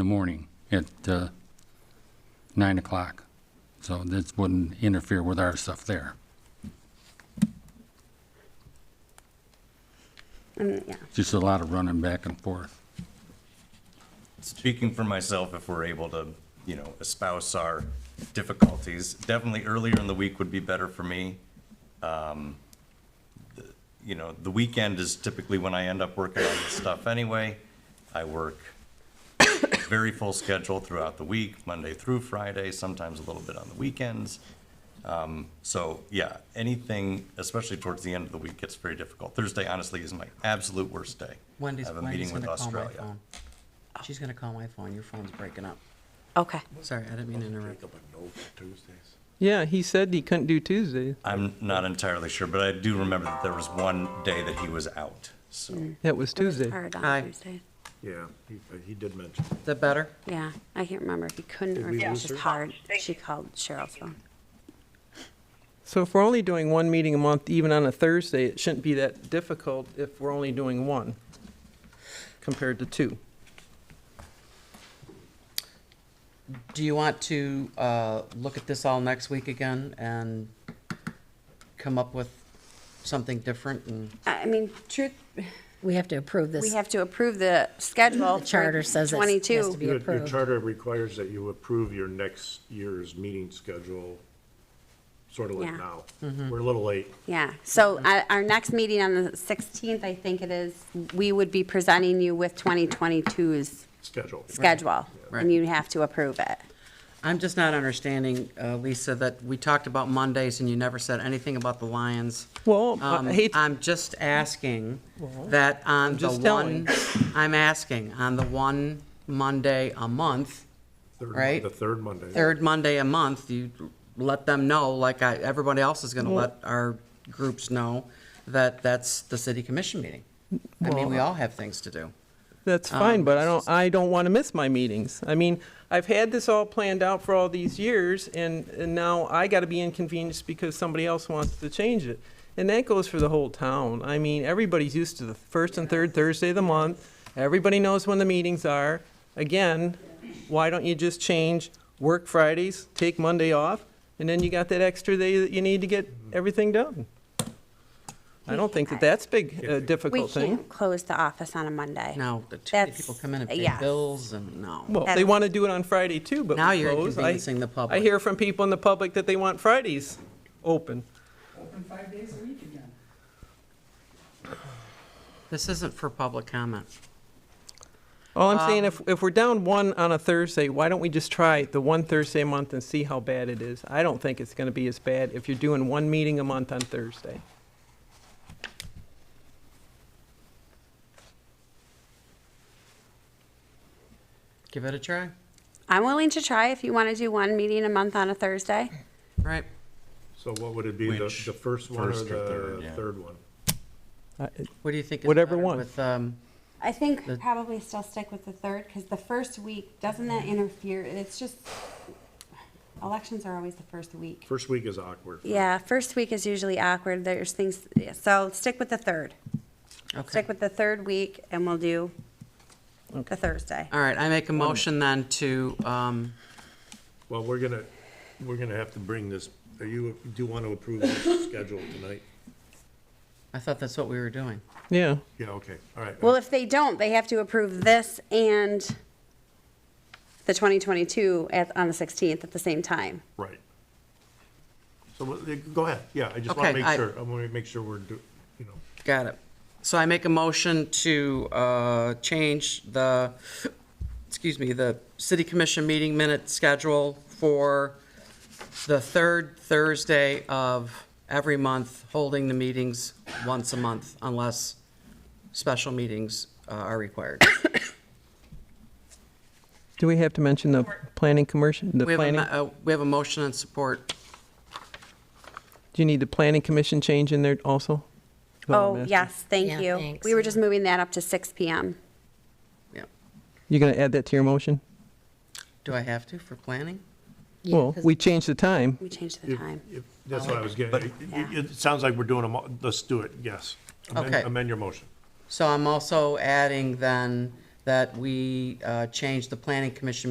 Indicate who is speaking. Speaker 1: the morning at uh, 9 o'clock. So this wouldn't interfere with our stuff there.
Speaker 2: Um, yeah.
Speaker 1: Just a lot of running back and forth.
Speaker 3: Speaking for myself, if we're able to, you know, espouse our difficulties, definitely earlier in the week would be better for me. Um, the- You know, the weekend is typically when I end up working on this stuff anyway. I work very full schedule throughout the week, Monday through Friday, sometimes a little bit on the weekends. Um, So, yeah, anything, especially towards the end of the week, gets very difficult. Thursday honestly is my absolute worst day. I
Speaker 4: Wendy's,
Speaker 3: have a meeting
Speaker 4: Wendy's
Speaker 3: with
Speaker 4: gonna call my
Speaker 3: Australia.
Speaker 4: phone. She's gonna call my phone. Your phone's breaking up.
Speaker 5: Okay.
Speaker 4: Sorry, I didn't mean to interrupt.
Speaker 6: Yeah, he said he couldn't do Tuesdays.
Speaker 3: I'm not entirely sure, but I do remember that there was one day that he was out, so.
Speaker 6: That was Tuesday.
Speaker 2: Hard
Speaker 4: Aye.
Speaker 2: on Tuesday.
Speaker 7: Yeah, he,
Speaker 3: uh,
Speaker 7: he did mention.
Speaker 4: Is that better?
Speaker 2: Yeah, I can't remember if he couldn't or if it was
Speaker 7: lose
Speaker 2: just
Speaker 7: her?
Speaker 2: hard. She called Cheryl's phone.
Speaker 6: So if we're only doing one meeting a month, even on a Thursday, it shouldn't be that difficult if we're only doing one compared to two.
Speaker 4: Do you want to, uh, look at this all next week again and come up with something different and?
Speaker 2: I I mean, truth,
Speaker 5: We have to approve this.
Speaker 2: we have to approve the schedule.
Speaker 5: The charter
Speaker 2: for
Speaker 5: says it has to be-
Speaker 2: Twenty-two.
Speaker 7: Your your
Speaker 5: approved.
Speaker 7: charter requires that you approve your next year's meeting schedule, sort of like
Speaker 2: Yeah.
Speaker 7: now.
Speaker 4: Mm-hmm.
Speaker 7: We're a little late.
Speaker 2: Yeah, so uh, our next meeting on the sixteenth, I think it is, we would be presenting you with 2022's
Speaker 7: Schedule.
Speaker 2: schedule.
Speaker 4: Right.
Speaker 2: And you have to approve it.
Speaker 4: I'm just not understanding, uh, Lisa, that we talked about Mondays and you never said anything about the Lions.
Speaker 6: Well, I
Speaker 4: Um,
Speaker 6: hate-
Speaker 4: I'm just asking that on the
Speaker 6: just
Speaker 4: one, I'm asking, on the one Monday a month,
Speaker 7: Third-
Speaker 4: Right.
Speaker 7: The third Monday.
Speaker 4: third Monday a month, you let them know, like I, everybody else is gonna let our groups know, that that's the city commission meeting. I mean, we all have things to do.
Speaker 6: That's fine, but I don't, I don't want to miss my meetings. I mean, I've had this all planned out for all these years, and, and now I got to be inconvenienced because somebody else wants to change it. And that goes for the whole town. I mean, everybody's used to the first and third Thursday of the month. Everybody knows when the meetings are. Again, why don't you just change work Fridays, take Monday off, and then you got that extra day that you need to get everything done? I don't think that that's big, a
Speaker 2: We
Speaker 6: difficult thing.
Speaker 2: can't close the office on a Monday.
Speaker 4: Now, the two
Speaker 2: That's-
Speaker 4: people come in and pay
Speaker 2: yes.
Speaker 4: bills and no.
Speaker 6: Well, they
Speaker 2: That's-
Speaker 6: want to do it on Friday too, but
Speaker 4: Now
Speaker 6: we
Speaker 4: you're
Speaker 6: close. I-
Speaker 4: inconveniencing the public.
Speaker 6: I hear from people in the public that they want Fridays open.
Speaker 4: This isn't for public comment.
Speaker 6: All
Speaker 4: Um,
Speaker 6: I'm saying, if, if we're down one on a Thursday, why don't we just try the one Thursday a month and see how bad it is? I don't think it's going to be as bad if you're doing one meeting a month on Thursday.
Speaker 4: Give it a try,
Speaker 2: I'm willing to try if you want to do one meeting a month on a Thursday.
Speaker 4: right?
Speaker 7: So what would it be, the,
Speaker 3: Which-
Speaker 7: the first one or
Speaker 3: first or third,
Speaker 7: the
Speaker 3: yeah.
Speaker 7: third one?
Speaker 6: I-
Speaker 4: What do you think is
Speaker 6: Whatever
Speaker 4: better
Speaker 6: one.
Speaker 4: with, um,
Speaker 2: I
Speaker 4: The-
Speaker 2: think probably still stick with the third, because the first week, doesn't that interfere? It's just, elections are always the first week.
Speaker 7: First week is awkward.
Speaker 2: Yeah, first week is usually awkward, there's things, yeah, so stick with the third.
Speaker 4: okay.
Speaker 2: Stick with the third week, and we'll do the Thursday.
Speaker 4: All right, I make a motion then to, um,
Speaker 7: Well, we're gonna, we're gonna have to bring this, are you, do you want to approve this schedule tonight?
Speaker 4: I thought that's what we were doing.
Speaker 6: Yeah,
Speaker 7: Yeah, okay, all right.
Speaker 2: Well, if they don't, they have to approve this and the 2022 at, on the 16th at the same time.
Speaker 7: Right. So, what- go ahead, yeah, I just want
Speaker 4: Okay,
Speaker 7: to
Speaker 4: I-
Speaker 7: make sure, I want to make sure we're, do- you know.
Speaker 4: Got it. So I make a motion to uh, change the, excuse me, the city commission meeting minute schedule for the third Thursday of every month, holding the meetings once a month unless special meetings uh, are required.
Speaker 6: do we have to mention the planning commission, the
Speaker 4: We have a,
Speaker 6: planning?
Speaker 4: mo- uh, we have a motion and support.
Speaker 6: Do you need the planning commission change in there also? That's all I'm
Speaker 2: Oh,
Speaker 6: asking.
Speaker 2: yes,
Speaker 5: Yeah,
Speaker 2: thank you.
Speaker 5: thanks.
Speaker 2: We were just moving that up to 6 PM.
Speaker 4: Yeah.
Speaker 6: You're going to add that to your motion?
Speaker 4: Do I have to for planning?
Speaker 5: Yeah,
Speaker 6: Well,
Speaker 5: 'cause-
Speaker 6: we changed the time.
Speaker 2: We changed the
Speaker 7: If-
Speaker 2: time.
Speaker 7: if- That's what I was getting,
Speaker 3: But-
Speaker 7: it, it- it sounds like we're doing them, all- let's do it, yes. Amend-
Speaker 4: Okay.
Speaker 7: Amend your motion.
Speaker 4: So I'm also adding then that we uh, change the planning commission